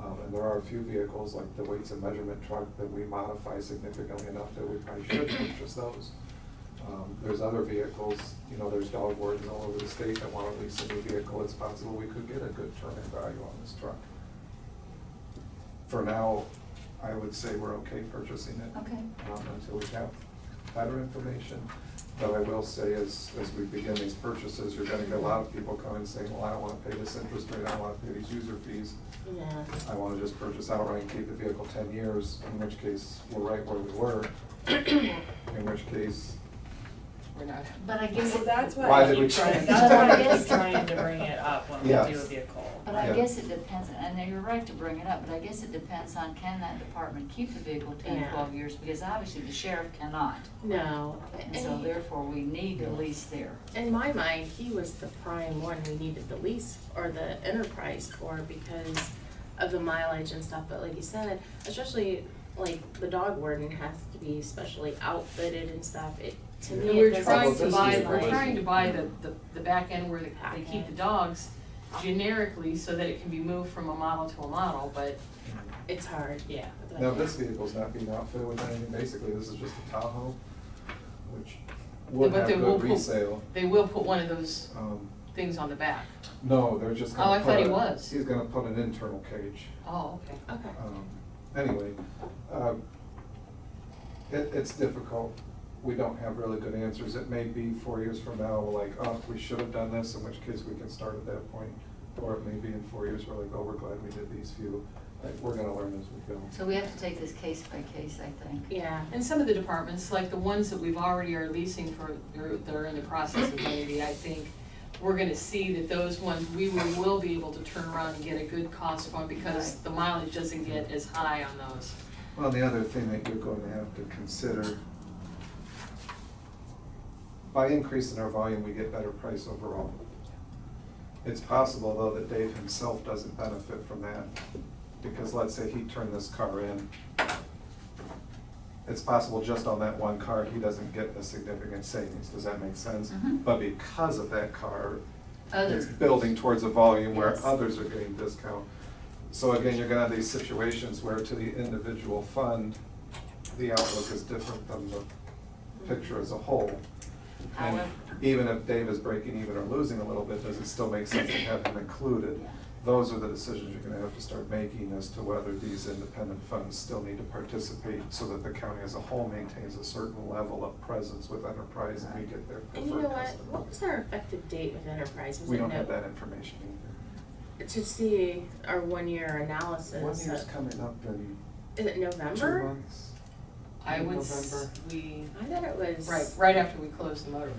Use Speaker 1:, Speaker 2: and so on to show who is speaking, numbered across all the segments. Speaker 1: Um, and there are a few vehicles, like the weights and measurement truck, that we modify significantly enough that we probably should purchase those. Um, There's other vehicles, you know, there's dog wardens all over the state that want to lease a new vehicle, it's possible we could get a good turn-in value on this truck. For now, I would say we're okay purchasing it.
Speaker 2: Okay.
Speaker 1: um, Until we have better information. But I will say, as, as we begin these purchases, you're gonna get a lot of people coming saying, well, I don't wanna pay this interest rate, I don't wanna pay these user fees.
Speaker 3: Yeah.
Speaker 1: I wanna just purchase outright and keep the vehicle ten years, in which case, we're right where we were, in which case,
Speaker 3: We're not.
Speaker 2: But I guess,
Speaker 4: Well, that's
Speaker 1: Why
Speaker 4: why I
Speaker 1: did we
Speaker 4: keep trying,
Speaker 1: change
Speaker 4: that's why
Speaker 2: that?
Speaker 4: I keep trying to bring it up when we
Speaker 1: Yes.
Speaker 4: do a vehicle.
Speaker 2: but I
Speaker 1: Yeah.
Speaker 2: guess it depends, and you're right to bring it up, but I guess it depends on can that department keep the vehicle ten,
Speaker 3: Yeah.
Speaker 2: twelve years? Because obviously the sheriff cannot,
Speaker 3: No.
Speaker 2: and so therefore we need the lease there.
Speaker 3: In my mind, he was the prime one we needed the lease or the enterprise for because of the mileage and stuff, but like you said, especially like the dog warden has to be specially outfitted and stuff, it, to
Speaker 1: Yeah.
Speaker 3: me,
Speaker 5: And
Speaker 3: it
Speaker 5: we're
Speaker 3: doesn't
Speaker 5: trying to
Speaker 3: seem
Speaker 1: Well,
Speaker 5: buy,
Speaker 1: this
Speaker 5: we're
Speaker 1: is-
Speaker 3: like-
Speaker 5: trying to buy the, the, the back end where they- they keep the dogs generically so that it can be moved from a model to a model, but
Speaker 3: It's hard,
Speaker 5: yeah.
Speaker 3: but-
Speaker 1: now this vehicle's not being outfitted with anything, basically, this is just a Tahoe, which would
Speaker 5: But
Speaker 1: have
Speaker 5: they will
Speaker 1: good
Speaker 5: put-
Speaker 1: resale.
Speaker 5: They will put one of those
Speaker 1: Um,
Speaker 5: things on the back.
Speaker 1: No, they're just gonna
Speaker 5: Oh, I
Speaker 1: put
Speaker 5: thought he
Speaker 1: a-
Speaker 5: was.
Speaker 1: He's gonna put an internal cage.
Speaker 5: Oh, okay.
Speaker 3: Okay.
Speaker 1: Um, Anyway, um, it, it's difficult. We don't have really good answers. It may be four years from now, we're like, oh, we should have done this, in which case we can start at that point. Or it may be in four years, we're like, oh, we're glad we did these few. Like, we're gonna learn as we go.
Speaker 2: So we have to take this case by case, I think.
Speaker 3: Yeah,
Speaker 5: And some of the departments, like the ones that we've already are leasing for, they're, they're in the process of maybe, I think, we're gonna see that those ones, we will, will be able to turn around and get a good cost on because
Speaker 2: Right.
Speaker 5: the mileage doesn't get as high on those.
Speaker 1: Well, the other thing that you're going to have to consider, by increasing our volume, we get better price overall. It's possible, though, that Dave himself doesn't benefit from that, because let's say he turned this car in. It's possible just on that one car, he doesn't get a significant savings, does that make sense?
Speaker 2: Mhm.
Speaker 1: But because of that car, it's
Speaker 2: Others,
Speaker 1: building towards a volume where
Speaker 3: Yes.
Speaker 1: others are getting discount. So again, you're gonna have these situations where to the individual fund, the outlook is different than the picture as a whole. And
Speaker 2: However-
Speaker 1: even if Dave is breaking even or losing a little bit, does it still make sense to have him included?
Speaker 2: Yeah.
Speaker 1: Those are the decisions you're gonna have to start making as to whether these independent funds still need to participate so that the county as a whole maintains a certain level of presence with enterprise and we get their
Speaker 3: and you know
Speaker 1: preferred
Speaker 3: what,
Speaker 1: customer.
Speaker 3: what was our effective date with Enterprise, was it
Speaker 1: We don't have
Speaker 3: no-
Speaker 1: that information either.
Speaker 3: To see our one-year analysis.
Speaker 1: One year's coming up in
Speaker 3: Is it
Speaker 1: two
Speaker 3: uh, November?
Speaker 1: months.
Speaker 5: I would, s-
Speaker 1: November.
Speaker 5: we,
Speaker 3: I thought it was.
Speaker 5: right, right after we close the motorhome.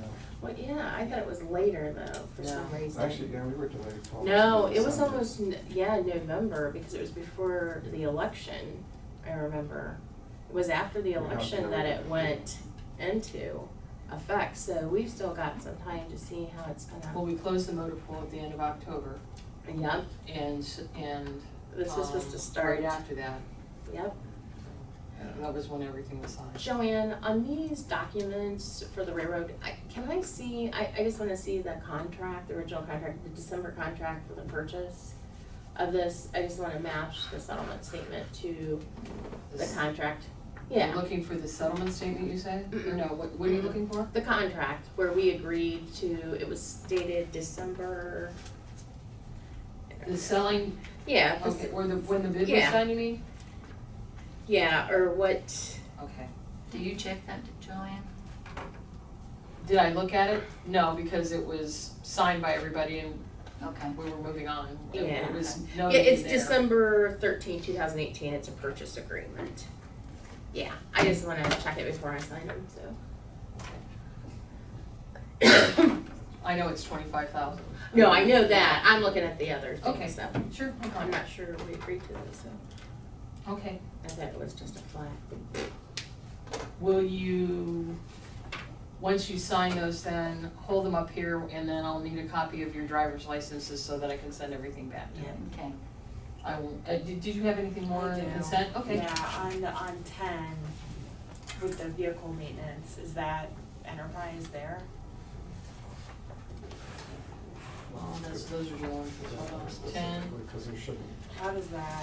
Speaker 3: Well, yeah, I thought it was later though, for some
Speaker 5: No.
Speaker 3: reason.
Speaker 1: Actually, yeah, we were delayed. till almost
Speaker 3: No, it was
Speaker 1: December.
Speaker 3: almost, n- yeah, November, because it was before the election, I remember. It was after the
Speaker 1: Yeah,
Speaker 3: election
Speaker 1: yeah.
Speaker 3: that it went into effect, so we've still got some time to see how it's
Speaker 5: Well,
Speaker 3: gonna.
Speaker 5: we closed the motor pool at the end of October
Speaker 3: Yep,
Speaker 5: and, s- and.
Speaker 3: this was supposed
Speaker 5: um,
Speaker 3: to start,
Speaker 5: Right after that,
Speaker 3: yep.
Speaker 5: that was when everything was signed.
Speaker 3: Joanne, on these documents for the railroad, I, can I see, I, I just wanna see the contract, the original contract, the December contract for the purchase of this, I just wanna match the settlement statement to the
Speaker 5: This-
Speaker 3: contract.
Speaker 5: You're
Speaker 3: Yeah,
Speaker 5: Looking for the settlement statement, you say? Or
Speaker 3: Mm-mm.
Speaker 5: no, what, what are you looking for?
Speaker 3: the contract where we agreed to, it was dated December.
Speaker 5: The selling,
Speaker 3: Yeah, the s-
Speaker 5: okay, or the, when the bid was
Speaker 3: Yeah.
Speaker 5: signed, you mean?
Speaker 3: yeah, or what,
Speaker 5: Okay.
Speaker 2: do you check that, Joanne?
Speaker 5: Did I look at it? No, because it was signed by everybody and
Speaker 2: Okay.
Speaker 5: we were moving on. It-
Speaker 3: Yeah.
Speaker 5: It was
Speaker 3: yeah,
Speaker 5: noted
Speaker 3: it's
Speaker 5: in there.
Speaker 3: December thirteenth, two thousand eighteen, it's a purchase agreement. Yeah, I just wanna check it before I sign them, so.
Speaker 5: I know it's twenty-five thousand.
Speaker 3: No, I know that. I'm looking at the other
Speaker 5: Okay.
Speaker 3: thing, so.
Speaker 5: Sure, no
Speaker 3: Oh, I'm
Speaker 5: problem.
Speaker 3: not sure we agreed to this, so.
Speaker 5: Okay.
Speaker 3: I thought it was just a flat.
Speaker 5: Will you, once you sign those, then hold them up here and then I'll need a copy of your driver's licenses so that I can send everything back.
Speaker 3: Yeah.
Speaker 2: Okay.
Speaker 5: I will, uh, did, did you have anything more
Speaker 6: I
Speaker 5: on
Speaker 6: do.
Speaker 5: consent? Okay.
Speaker 6: Yeah, on the, on ten, with the vehicle maintenance, is that enterprise there?
Speaker 5: Well, those, those are the ones, hold on, ten.
Speaker 1: Because there shouldn't
Speaker 6: How does that?